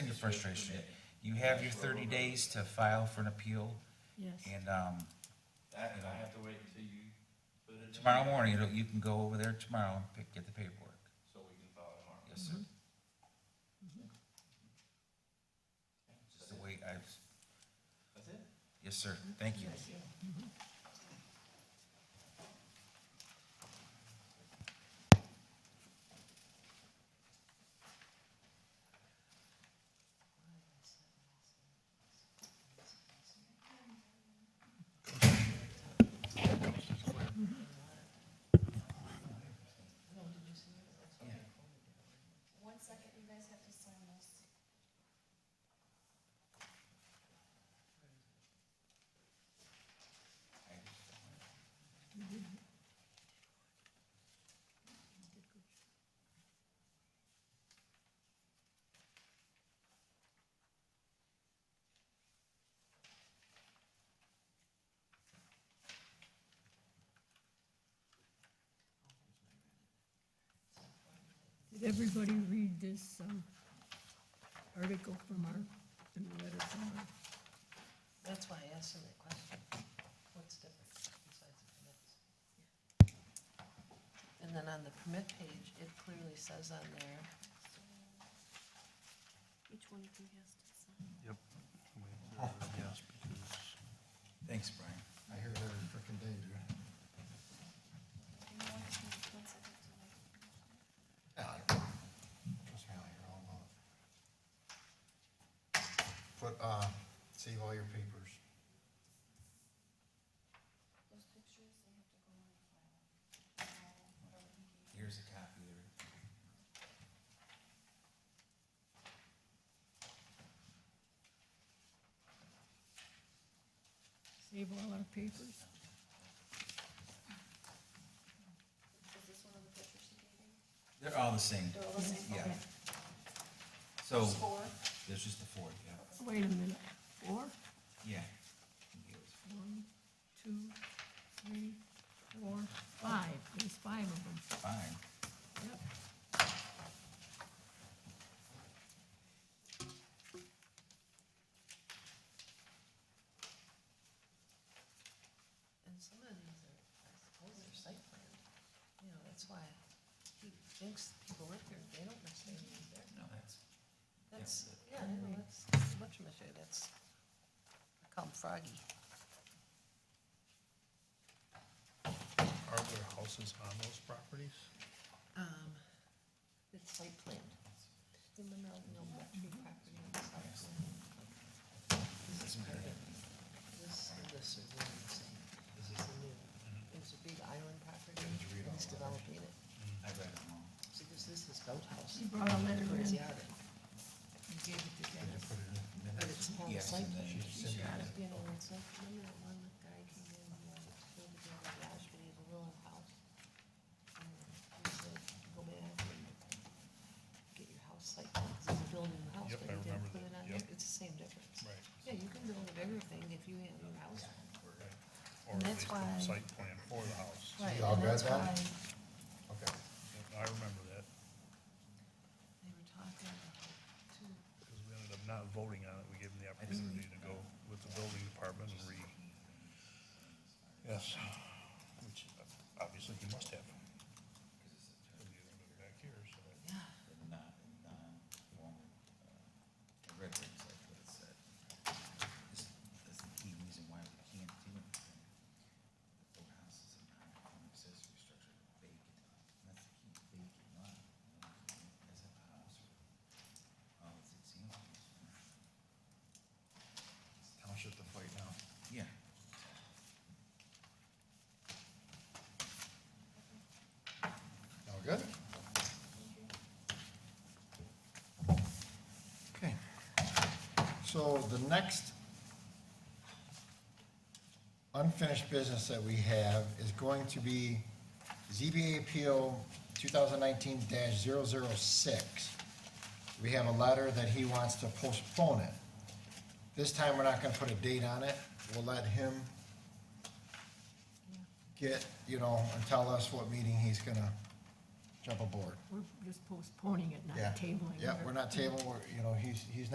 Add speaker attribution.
Speaker 1: frustration. You have your thirty days to file for an appeal,
Speaker 2: Yes.
Speaker 1: and, um,
Speaker 3: That, and I have to wait until you put it in.
Speaker 1: tomorrow morning, it'll- you can go over there tomorrow and pick, get the paperwork.
Speaker 3: So we can file it tomorrow.
Speaker 1: Yes, sir. Mm-hmm. Just the way I,
Speaker 3: That's it?
Speaker 1: yes, sir, thank you.
Speaker 4: One second, you guys have to sign this.
Speaker 2: Did everybody read this um, article from our, and the letter from our,
Speaker 5: That's why I asked him that question. What's different besides the permits? And then on the permit page, it clearly says on there,
Speaker 4: Each one of you has to sign.
Speaker 6: Yes, because
Speaker 1: Thanks, Brian.
Speaker 6: I hear it every frickin' day, dude.
Speaker 4: You know what, just one- one second to wait.
Speaker 6: Yeah, Ah, I- Trust me, I hear all about it. Put, uh, save all your papers.
Speaker 4: Those pictures, they have to go on the file.
Speaker 1: Here's a copy there.
Speaker 2: save all our papers?
Speaker 4: Is this one of the pictures you gave me?
Speaker 1: They're all the same,
Speaker 4: They're all the same?
Speaker 1: yeah.
Speaker 4: Okay.
Speaker 1: So,
Speaker 4: There's Four?
Speaker 1: there's just the four, yeah.
Speaker 2: Wait a minute, four,
Speaker 1: Yeah.
Speaker 2: one, two, three, four, five, there's five of them,
Speaker 1: Fine.
Speaker 2: yep.
Speaker 5: and some of these are, I suppose they're site planned. You know, that's why he thinks people live here, they don't necessarily live there.
Speaker 1: No, that's.
Speaker 5: That's, yeah, I know, that's, whatchamacallit, that's, I call him Froggy.
Speaker 7: Are there houses on those properties?
Speaker 5: Um, It's site planned. The Monell Millbrook property on the south side. This is part of it. This and this are really the same. This is the new.
Speaker 1: Mm-hmm.
Speaker 5: There's a big island property, and he's developing it.
Speaker 1: I read them all.
Speaker 5: So this is his boathouse.
Speaker 2: She brought a letter
Speaker 5: Where he's
Speaker 2: in.
Speaker 5: out at. He gave it to Dennis. But it's not
Speaker 1: Yes,
Speaker 5: site
Speaker 1: and then
Speaker 5: planned.
Speaker 1: she sent it.
Speaker 5: Oh, You know, it's like, remember that one guy came in, he wanted to build a garage, but he has a little house? And he said, go back and get your house site planned, 'cause he's building a house,
Speaker 7: Yep,
Speaker 5: but
Speaker 7: I
Speaker 5: he didn't
Speaker 7: remember
Speaker 5: put it
Speaker 7: that,
Speaker 5: on
Speaker 7: yep.
Speaker 5: there, it's the same difference.
Speaker 7: Right.
Speaker 5: Yeah, you can build a bigger thing if you have your house.
Speaker 7: Or
Speaker 5: And
Speaker 7: at
Speaker 5: that's
Speaker 7: least
Speaker 5: why-
Speaker 7: a site plan for the house.
Speaker 5: Right,
Speaker 6: y'all
Speaker 5: and
Speaker 6: read
Speaker 5: that's
Speaker 6: that?
Speaker 5: why
Speaker 6: Okay.
Speaker 7: I remember that,
Speaker 5: They were talking about two,
Speaker 7: because we ended up not voting on it. We gave them the opportunity to go with the building department and re, yes, which obviously he must have. Back here, so.
Speaker 5: yeah.
Speaker 1: The non, non-conforming, uh, I read it, it's like what it said. This- That's the key reason why we can't do anything. The four houses and non-conforming accessory structure vacant, And that's the key, vacant lot. As a house, all its examples.
Speaker 6: I'll shut the fight now.
Speaker 1: Yeah.
Speaker 6: Now we're good? Okay. So the next unfinished business that we have is going to be ZBA Appeal 2019-006. We have a letter that he wants to postpone it. This time, we're not gonna put a date on it. We'll let him get, you know, and tell us what meeting he's gonna jump aboard.
Speaker 2: We're just postponing it, not
Speaker 6: Yeah.
Speaker 2: tabling it.
Speaker 6: Yeah, we're not table, we're, you know, he's, he's